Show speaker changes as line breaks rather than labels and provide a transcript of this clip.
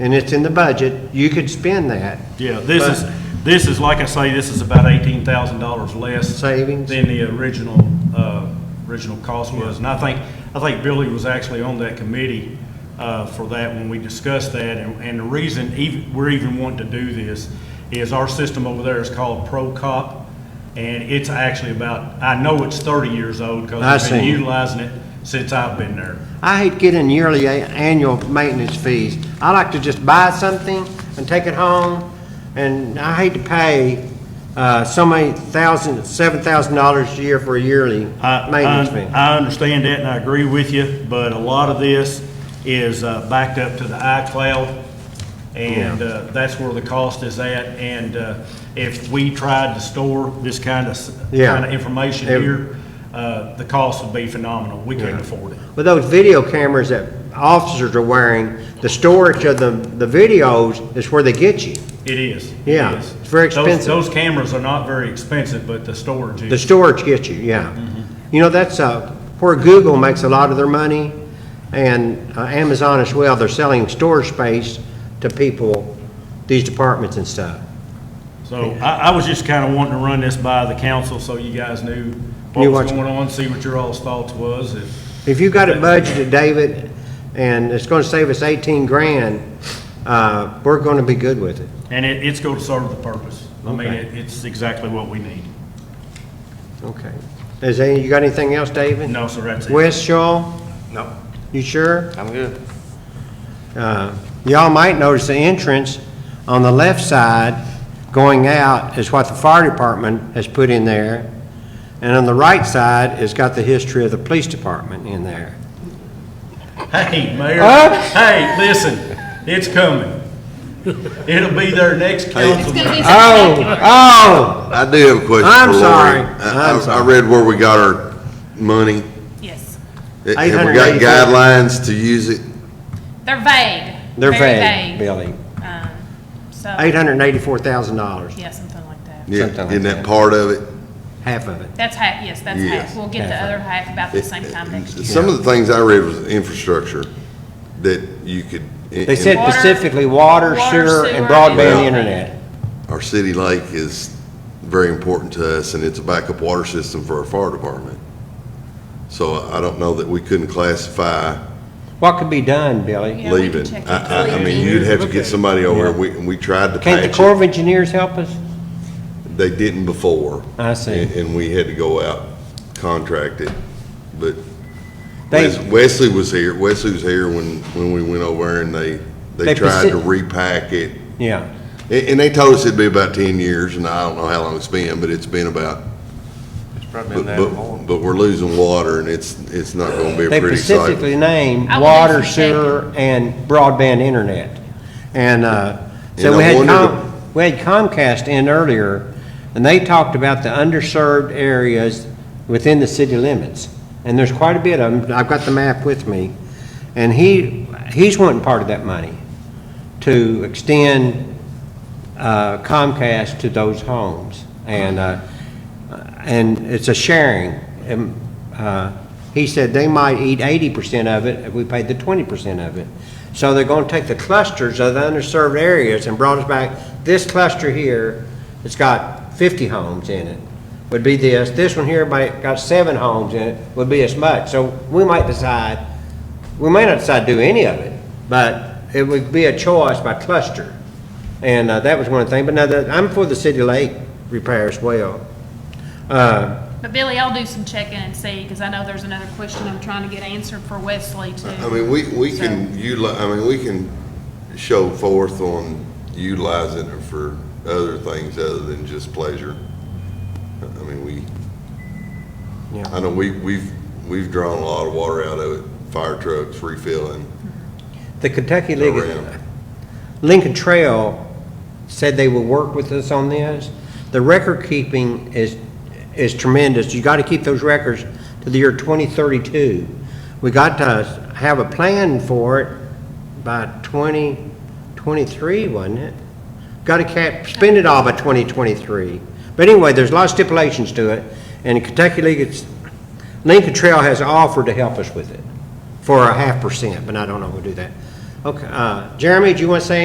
and it's in the budget, you could spend that.
Yeah, this
But-
is, this is, like I say, this is about eighteen thousand dollars less.
Savings.
Than the original, uh, original cost was. And I think, I think Billy was actually on that committee, uh, for that when we discussed that. And, and the reason even, we're even wanting to do this is our system over there is called ProCop. And it's actually about, I know it's thirty years old because
I
I've been
see.
utilizing it since I've been there.
I hate getting yearly, a- annual maintenance fees. I like to just buy something and take it home, and I hate to pay, uh, so many thousand, seven thousand dollars a year for a yearly
I-
maintenance
I-
fee.
I understand that and I agree with you, but a lot of this is uh, backed up to the iCloud. And uh, that's where the cost is at. And uh, if we tried to store this kind of, s-
Yeah.
kind of information
Ev-
here, uh, the cost would be phenomenal. We can't afford it.
With those video cameras that officers are wearing, the storage of the, the videos is where they get you.
It is. It
Yeah,
is.
it's very
Those-
expensive.
Those cameras are not very expensive, but the storage
The
is.
storage gets you, yeah. You know, that's uh, where Google makes a lot of their money, and uh, Amazon as well. They're selling storage space to people, these departments and stuff.
So I, I was just kind of wanting to run this by the council so you guys knew what
Knew
was
what-
going on, see what your all's thoughts was. If-
If you got it budgeted, David, and it's going to save us 18 grand, uh, we're going to be good with it.
And it, it's going to serve the purpose. I mean,
Okay.
it, it's exactly what we need.
Okay. Is any, you got anything else, David?
No, sir, that's it.
Wes, Shaw,
No,
you sure?
I'm good.
Uh, Y'all might notice the entrance on the left side going out is what the fire department has put in there. And on the right side has got the history of the police department in there.
Hey, Mayor,
Huh?
hey, listen, it's coming. It'll be their next council. meeting.
Oh, oh,
I do have a question
I'm
for Lori.
sorry.
I-
I'm
I-
sorry.
I read where we got our money.
Yes,
Have we got
884.
guidelines to use it?
they're vague.
they're
very
vague, Billy.
Um, so,
$884,000,
yeah, something like that.
Yeah,
Something like
Isn't
that.
that part of it?
half of it.
That's half, yes, that's
Yes.
half. We'll get the
Half.
other half about the same time next year.
Some of the things I read was infrastructure that you could.
They said
Water-
specifically water,
water,
sewer, and
sewer,
broadband
and-
internet.
Our city lake is very important to us and it's a backup water system for our fire department. So I don't know that we couldn't classify
What could be done, Billy?
Yeah, we can
leaving.
check
I,
into
I, I
it.
mean, you'd have to get somebody over and we, and we tried to
Can't the
patch
Corps
it.
of Engineers help us?
They didn't before.
I see.
And- And we had to go out, contract it, but
They-
Wes- Wesley was here, Wesley was here when, when we went over and they,
They
they tried to
persi-
repack it.
Yeah.
And, and they told us it'd be about ten years, and I don't know how long it's been, but it's been about,
It's probably
but,
been that long.
but, but we're losing water and it's, it's not gonna be a
They
pretty sight.
specifically named
I will
water,
definitely check.
sewer, and broadband internet. And, uh, so
And
we
I
had
wondered-
Com, we had Comcast in earlier, and they talked about the underserved areas within the city limits. And there's quite a bit of them, I've got the map with me, and he, he's wanting part of that money to extend uh, Comcast to those homes. And, uh, and it's a sharing. And, uh, He said they might eat eighty percent of it if we paid the twenty percent of it. So they're gonna take the clusters of the underserved areas and brought us back, this cluster here, it's got fifty homes in it, would be this. This one here, by, got seven homes in it, would be as much. So we might decide, we may not decide to do any of it, but it would be a choice by cluster. And uh, that was one thing, but now that, I'm for the city lake repair as well.
But Billy, I'll do some checking and see, because I know there's another question I'm trying to get answered for Wesley too.
I mean, we, we can utilize, I mean, we can show forth on utilizing it for other things other than just pleasure. I mean, we,
Yeah.
I know we, we've, we've drawn a lot of water out of it, fire trucks refilling
The Kentucky League,
around.
Lincoln Trail said they will work with us on this. The record keeping is, is tremendous. You gotta keep those records to the year twenty thirty-two. We got to have a plan for it by twenty twenty-three, wasn't it? Gotta cap, spend it all by twenty twenty-three. But anyway, there's a lot of stipulations to it, and Kentucky League, it's, Lincoln Trail has offered to help us with it for a half percent, but I don't know if we'll do that. Okay, uh, Jeremy, do you want to say